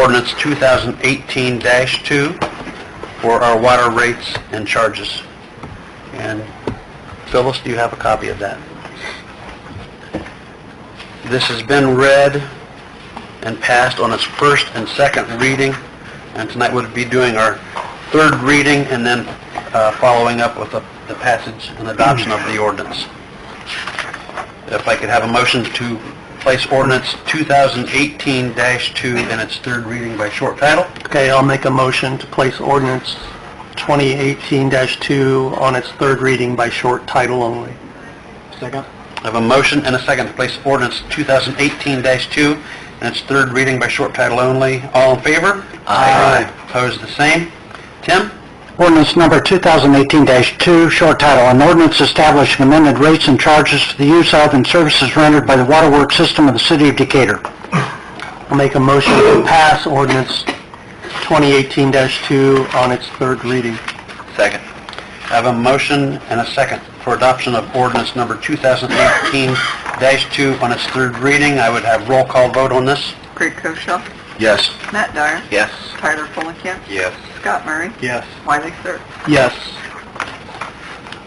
ordinance 2018-2 for our water rates and charges. And Phyllis, do you have a copy of that? This has been read and passed on its first and second reading, and tonight we'll be doing our third reading and then uh, following up with the the passage and adoption of the ordinance. If I could have a motion to place ordinance 2018-2 in its third reading by short title? Okay, I'll make a motion to place ordinance 2018-2 on its third reading by short title only. Second. I have a motion and a second to place ordinance 2018-2 in its third reading by short title only. All in favor? Aye. Opposed, the same. Tim? Ordinance number 2018-2, short title, an ordinance establishing amended rates and charges for the use of and services rendered by the waterworks system of the city of Decatur. I'll make a motion to pass ordinance 2018-2 on its third reading. Second. I have a motion and a second for adoption of ordinance number 2018-2 on its third reading. I would have roll call vote on this. Craig Koshaw, Yes. Matt Dyer, Yes. Tyler Fulenkamp, Yes. Scott Murray, Yes. Wiley Sir. Yes.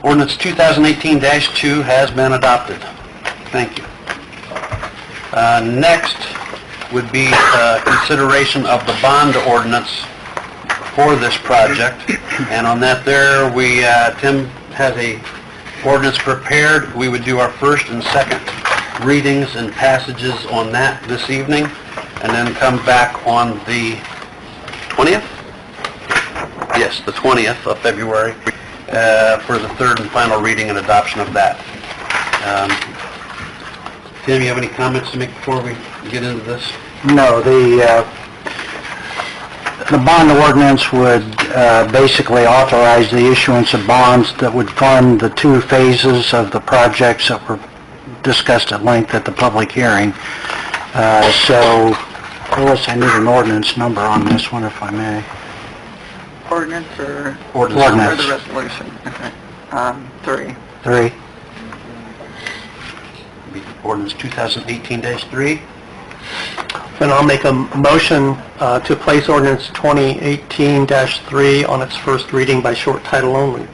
Ordinance 2018-2 has been adopted. Thank you. Uh, Next would be uh, consideration of the bond ordinance for this project. And on that there, we, uh, Tim has a ordinance prepared. We would do our first and second readings and passages on that this evening, and then come back on the 20th? Yes, the 20th of February, uh, for the third and final reading and adoption of that. Um, Tim, you have any comments to make before we get into this? No, the, uh, the bond ordinance would uh, basically authorize the issuance of bonds that would fund the two phases of the projects that were discussed at length at the public hearing. Uh, So, Phyllis, I need an ordinance number on this one, if I may. Ordinance or? Ordinance. Or Ordinance. the resolution, okay. Um, three. Three. Be Ordinance 2018-3. Then I'll make a motion uh, to place ordinance 2018-3 on its first reading by short title only.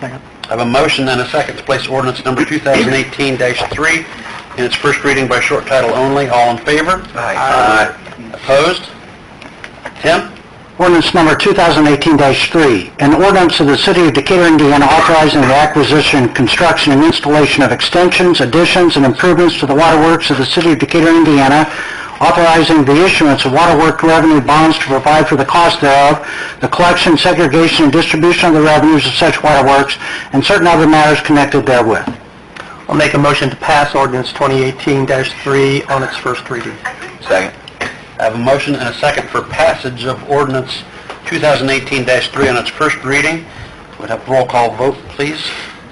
Second. I have a motion and a second to place ordinance number 2018-3 in its first reading by short title only. All in favor? Aye. Aye. Opposed? Tim? Ordinance number 2018-3, an ordinance of the City of Decatur, Indiana authorizing the acquisition, construction, and installation of extensions, additions, and improvements to the waterworks of the City of Decatur, Indiana, authorizing the issuance of waterwork revenue bonds to provide for the cost thereof, the collection, segregation, and distribution of the revenues of such waterworks, and certain other matters connected therewith. I'll make a motion to pass ordinance 2018-3 on its first reading. Second. I have a motion and a second for passage of ordinance 2018-3 on its first reading. Would have roll call vote, please?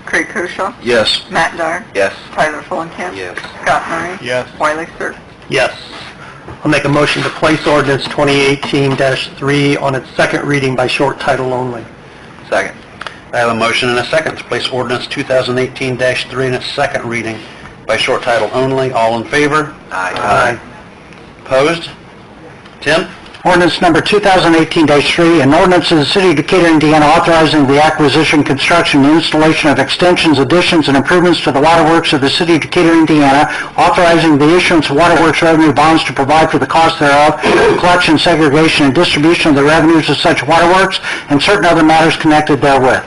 Craig Koshaw, Yes. Matt Dyer, Yes. Tyler Fulenkamp. Yes. Scott Murray. Yes. Wiley Sir. Yes. I'll make a motion to place ordinance 2018-3 on its second reading by short title only. Second. I have a motion and a second to place ordinance 2018-3 in its second reading by short title only. All in favor? Aye. Opposed? Tim? Ordinance number 2018-3, an ordinance of the City of Decatur, Indiana authorizing the acquisition, construction, and installation of extensions, additions, and improvements to the waterworks of the City of Decatur, Indiana, authorizing the issuance of waterworks revenue bonds to provide for the cost thereof, collection, segregation, and distribution of the revenues of such waterworks, and certain other matters connected therewith.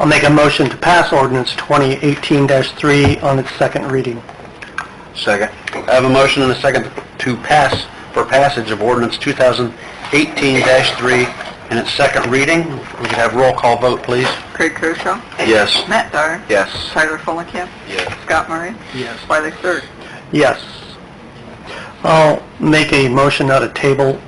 I'll make a motion to pass ordinance 2018-3 on its second reading. Second. I have a motion and a second to pass, for passage of ordinance 2018-3 in its second reading. We could have roll call vote, please. Craig Koshaw, Yes. Matt Dyer. Yes. Tyler Fulenkamp. Yes. Scott Murray. Yes. Wiley Sir. Yes. I'll make a motion out of table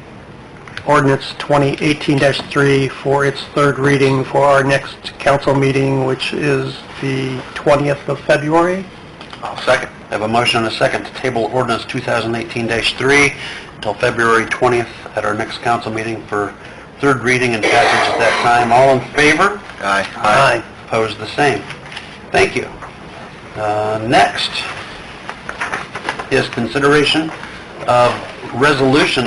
ordinance 2018-3 for its third reading for our next council meeting, which is the 20th of February. I'll second. I have a motion and a second to table ordinance 2018-3 until February 20th at our next council meeting for third reading and passage at that time. All in favor? Aye. Aye. Opposed, the same. Thank you. Uh, Next is consideration of resolution